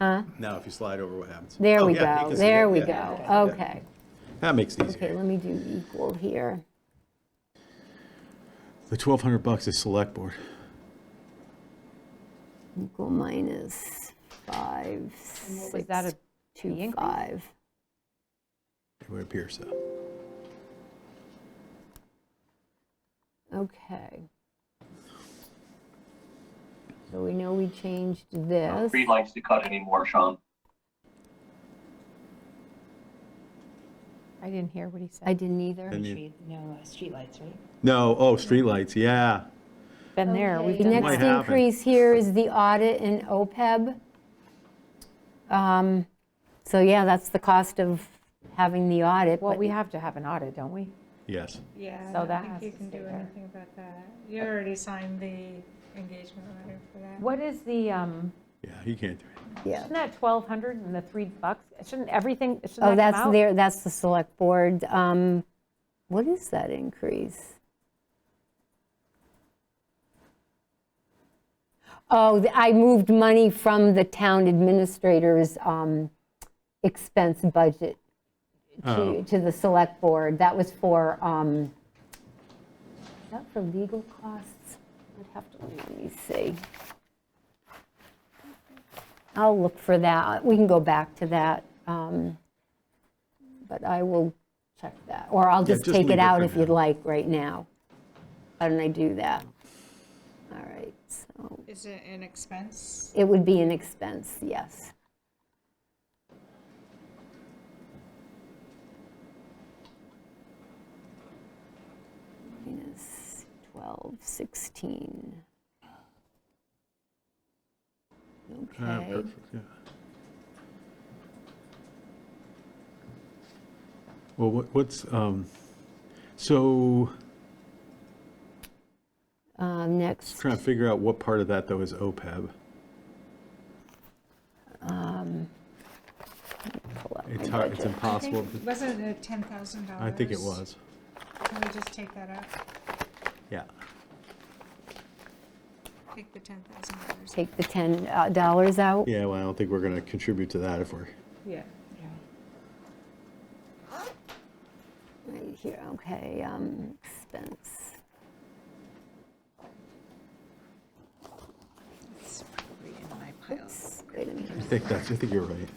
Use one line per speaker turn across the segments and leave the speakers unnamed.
Now, if you slide over, what happens?
There
Oh,
we
yeah, you
go,
can see
there
it.
we
Yeah.
go,
Yeah.
okay.
That makes it
Okay,
easier.
let me do equal here.
The 1,200 bucks is select board.
Equal minus five,
was that,
six,
a fee
two,
increase?
five.
It would appear so.
Okay. So we know we changed this.
Reed likes to cut anymore, Sean.
I didn't hear what he said.
I didn't either.
Didn't you-
Street, no, uh, streetlights, right?
No, oh, streetlights, yeah.
Been there, we've
The
done
might
next
that.
happen.
increase here is the audit and OPEB. E Um, So yeah, that's the cost of having the audit.
Well,
but-
we have to have an audit, don't we?
Yes.
Yeah, I
So
don't
that
think
has
you
to
can
stay
do
there.
anything about that. You already signed the engagement letter for that.
What is the, um,
Yeah, you can't do it.
Yeah.
isn't that 1,200 and the 3 bucks? Shouldn't everything, shouldn't that
Oh,
come
that's
out?
there, that's the select board. Um, What is that increase? Oh, th- I moved money from the town administrator's um, expense budget
Oh.
to, to the select board. That was for, um, is that for legal costs? I'd have to, let me see. I'll look for that. We can go back to that. um, But I will check that, or I'll just
just
take
leave
it
it
out
for
if you'd
now.
like right now. Why don't I do that? All right, so
Is it an expense?
it would be an expense, yes. Minus 12, 16.
Ah,
Okay.
perfect, yeah. Well, what- what's, um, so,
Um, Next,
trying to figure out what part of that, though, is E OPEB.
pull up
It's
my
hard, it's
budget.
I
impossible.
think- Wasn't it ten thousand dollars?
I think it was,
Can we just take that out?
yeah.
Take the ten thousand dollars.
Take the $10 dollars out.
Yeah, well, I don't think we're going to contribute to that if we're,
Yeah.
Right here, okay, um, expense.
It's probably in my pile.
Oops, Wait a minute.
I think that's, I think you're right.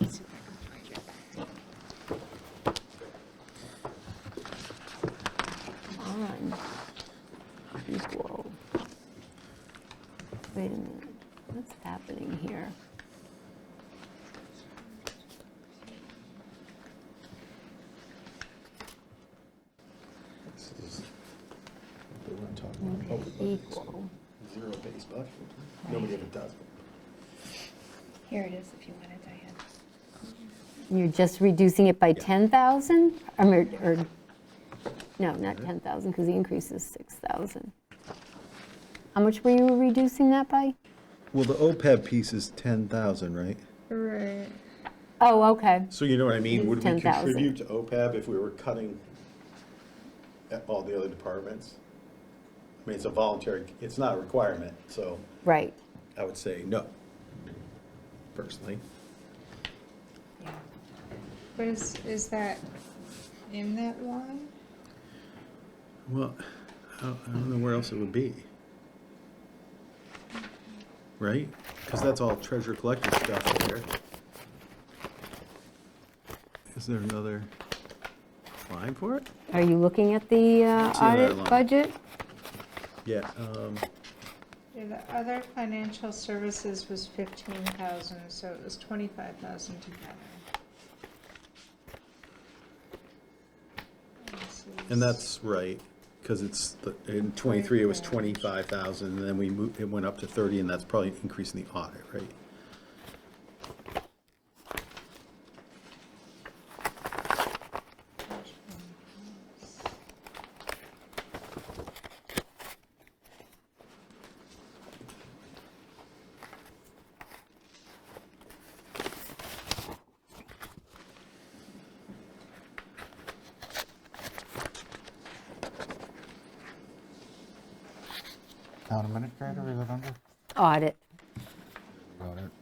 Let's see if I can find it.
on equal. Wait a minute, what's happening here?
Oh,
Okay, Equal,
zero-based budget. Nobody ever does.
Here it is, if you want it, Diane.
you're just reducing it by 10,000? I mean, Or, or- no, not 10,000, because the increase is 6,000. How much were you reducing that by?
Well, the OPEB piece is 10,000, right?
Right.
Oh, okay,
So you know what I mean? Would we
10,000.
contribute to OPEB if we were cutting at all the other departments? I mean, it's a voluntary, it's not a requirement, so
right.
I would say no, personally.
But is, is that in that line?
Well, I don't I don't know where else it would be. Right?
Because that's all treasure collector stuff here.
Is there another line for it?
Are you looking at the uh,
See another
audit
line.
budget?
Yeah, um,
Yeah, the other financial services was fifteen thousand, so it was twenty-five thousand together. This
and
is-
that's right, because it's, the- in 23, it was 25,000, and then we moved, it went up to 30, and that's probably increasing the audit, right?
Town administrator, is it under?
Audit.